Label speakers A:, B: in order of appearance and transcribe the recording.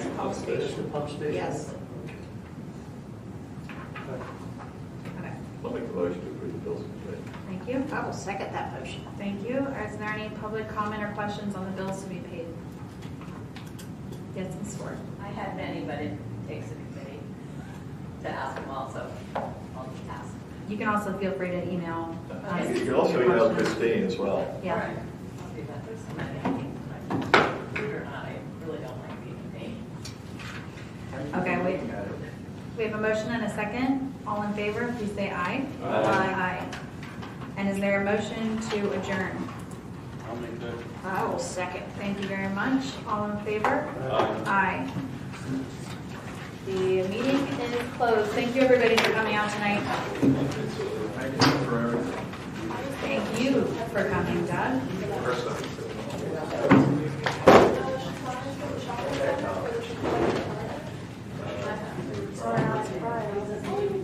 A: That's the pump station?
B: Yes.
C: Okay,
A: I'll make the motion to approve the bills and pay.
C: Thank you.
B: I will second that motion.
C: Thank you. Is there any public comment or questions on the bills to be paid? Yes, Ms. Ford.
D: I had many, but it takes a committee to ask them all, so I'll just ask.
C: You can also feel free to email. us
A: You can also email
C: your questions.
A: Christine as well.
C: Yeah.
D: Right. I'll do that. There's so many things, but believe it or not, I really don't like being named.
C: Okay, wait. We have a motion and a second. All in favor, please say aye.
E: Aye.
C: Aye. And is there a motion to adjourn?
E: I'll make that.
B: I will second.
C: Thank you very much. All in favor?
E: Aye.
C: Aye. The meeting is closed. Thank you, everybody, for coming out tonight. Thank you for coming, Doug.